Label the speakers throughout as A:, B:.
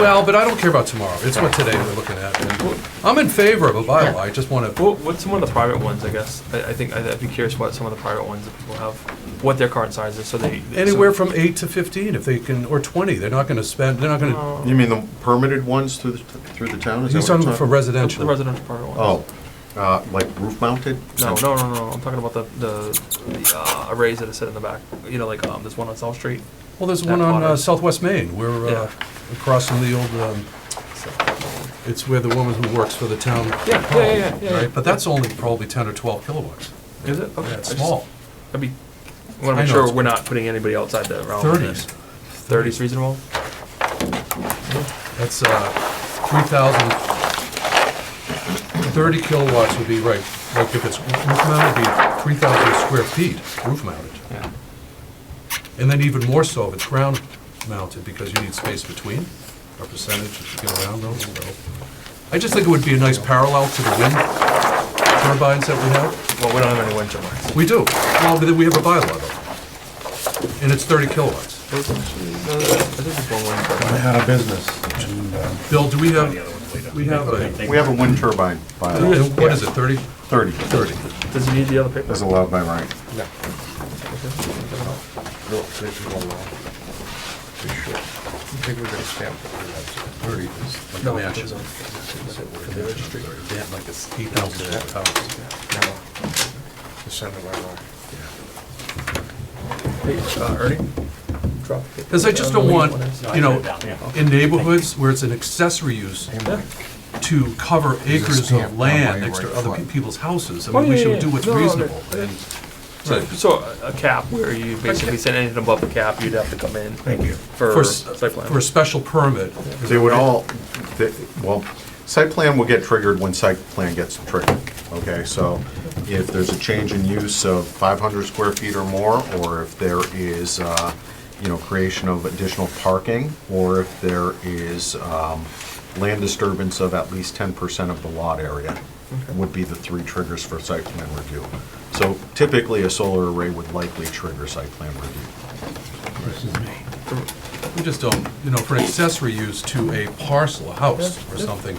A: Well, but I don't care about tomorrow. It's what today we're looking at. And I'm in favor of a bylaw. I just want to,
B: What, what's some of the private ones, I guess? I, I think, I'd I'd be curious what some of the private ones that people have, what their current size is, so they. so-
A: anywhere from eight to 15 if they can, or 20. They're not going to spend, they're not going to,
B: Oh,
C: You mean the permitted ones through the, through the town? Is that
A: he's
C: what
A: talking
C: you're
A: for residential.
B: The residential private ones.
C: Oh, uh, like roof mounted?
B: No, no, no, no, I'm talking about the, the, the uh, arrays that are set in the back, you know, like, um, there's one on South Street.
A: Well, there's
B: That
A: one on uh,
B: water.
A: Southwest Main. We're
B: Yeah.
A: uh, across from the old, um,
B: so-
A: it's where the woman who works for the town.
B: Yeah, yeah, yeah, yeah, yeah, yeah.
A: Right, but that's only probably 10 or 12 kilowatts.
B: Is it? Okay,
A: Yeah, it's
B: I just-
A: small.
B: I'd be, I wanna
A: I
B: make
A: know
B: sure
A: it's-
B: we're not putting anybody outside the realm.
A: 30s.
B: Thirties reasonable?
A: That's uh, 3,000, 30 kilowatts would be right, like if it's roof mounted, it'd be 3,000 square feet roof mounted.
B: Yeah.
A: And then even more so if it's ground mounted, because you need space between, a percentage if you get around those, so. I just think it would be a nice parallel to the wind turbines that we have.
B: Well, we don't have any wind turbines.
A: We do, well, but then we have a bylaw though, and it's 30 kilowatts.
B: Those- no, I think it's one wind turbine.
D: out of business. and, uh,
A: Bill, do we have, we have a,
C: We have a wind turbine bylaw,
A: what is it, 30?
C: 30.
A: 30.
B: Does he need the other paper?
C: That's allowed by right.
A: No, matches. They have like this eight thousand dollar house.
B: Hey, uh, Ernie? Drop the paper.
A: Because I just don't want, you know, in neighborhoods where it's an accessory use
B: Yeah.
A: to cover acres
C: stamp
A: of
C: on
A: land
C: my
A: next to
C: right
A: other pe-
C: front.
A: people's houses. I
B: Oh,
A: mean, we
B: yeah,
A: should
B: yeah,
A: do what's
B: yeah. No, no,
A: reasonable.
B: no.
A: and-
B: So, so a cap where you basically said anything above the cap, you'd have to come in. Thank you.
A: For,
B: For
A: s-
B: site plan.
A: for a special permit.
C: They would all, they- well, site plan will get triggered when site plan gets triggered, okay? So if there's a change in use of 500 square feet or more, or if there is, uh, you know, creation of additional parking, or if there is um, land disturbance of at least 10% of the lot area, would be the three triggers for site plan review. So typically, a solar array would likely trigger site plan review.
A: We just don't, you know, for an accessory use to a parcel, a house or something,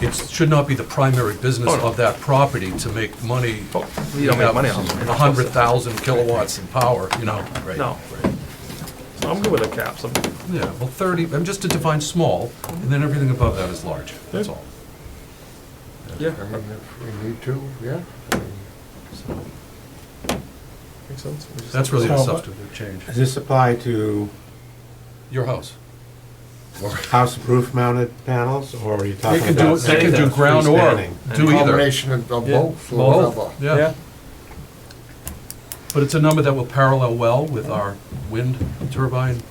A: it should not be the primary business
B: Oh, no.
A: of that property to make money.
B: Oh, You don't make money on
A: A
B: them.
A: hundred thousand kilowatts in power, you know? right,
B: No.
A: right.
B: I'm good with a cap, so
A: Yeah, well, thirty, I'm just to define small, and then everything above that is large, that's all.
B: yeah.
E: I mean, if we need to, yeah. I mean,
B: Makes sense. We just-
A: That's really a
D: So-
A: substantive change.
D: Does this apply to
A: Your house.
D: house roof mounted panels, or are you
A: They
D: talking
A: can
D: about?
A: do, they can do ground or
D: freestanding?
A: do either.
E: Combination of of
B: Yeah.
E: both, or
A: Both,
E: whatever.
A: yeah. But it's a number that will parallel well with our wind turbine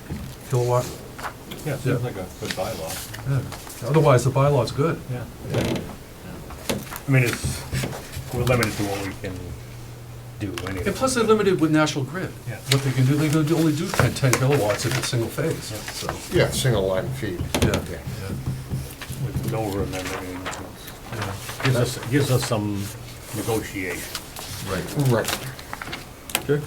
A: kilowatt. Yeah, seems like a good bylaw. Otherwise, the bylaw's good.
F: Yeah. I mean, it's, we're limited to what we can do anyway.
A: And plus, they're limited with National Grid.
F: Yeah.
A: What they can do, they can only do 10 10 kilowatts if it's single phase, so,
E: Yeah, single line feed.
A: yeah.
E: Yeah.
F: With no remembering. it's-
A: yeah,
F: Gives us, gives us some negotiation.
A: Right.
E: Right.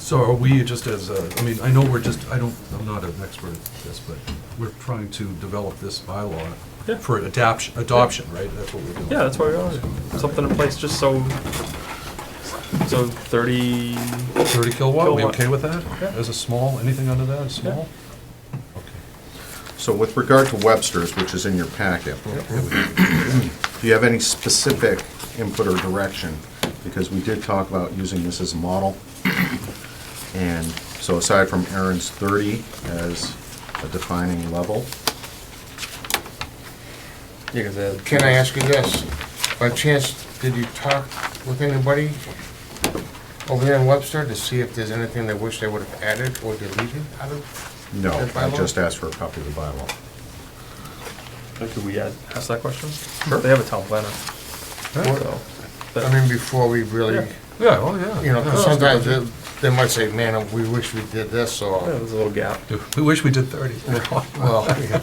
A: So are we just as, a- I mean, I know we're just, I don't, I'm not an expert at this, but we're trying to develop this bylaw
B: Yeah.
A: for adoption, adoption, right? That's what we're doing.
B: Yeah, that's why we are. Something in place just so, so thirty,
A: 30 kilowatt, we
B: Kilowatt.
A: okay with that?
B: Yeah.
A: As a small, anything under that is small?
C: So with regard to Webster's, which is in your packet, do you have any specific input or direction? Because we did talk about using this as a model. And so aside from Aaron's 30 as a defining level,
E: Can I ask you this? By chance, did you talk with anybody over there in Webster to see if there's anything they wish they would have added or deleted out of?
C: no,
E: The
C: I
E: bylaw?
C: just asked for a copy of the bylaw.
B: could we add- ask that question? They have a town planner, so. but-
E: I mean, before we really,
A: Yeah, oh, yeah.
E: you know, 'cause
A: Yeah.
E: sometimes they- they might say, man, we wish we did this,
B: Yeah,
E: or,
B: There's a little gap.
A: We wish we did 30.
E: well. yeah.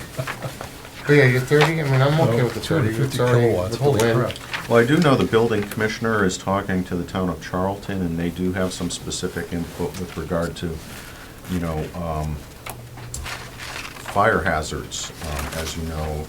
E: But yeah, you're thirty, I mean, I'm okay with the thirty.
A: 250
E: It's already
A: kilowatts,
E: with the
A: holy
E: wind.
A: crap.
C: Well, I do know the building commissioner is talking to the town of Charlton, and they do have some specific input with regard to, you know, um, fire hazards. Um, As you know,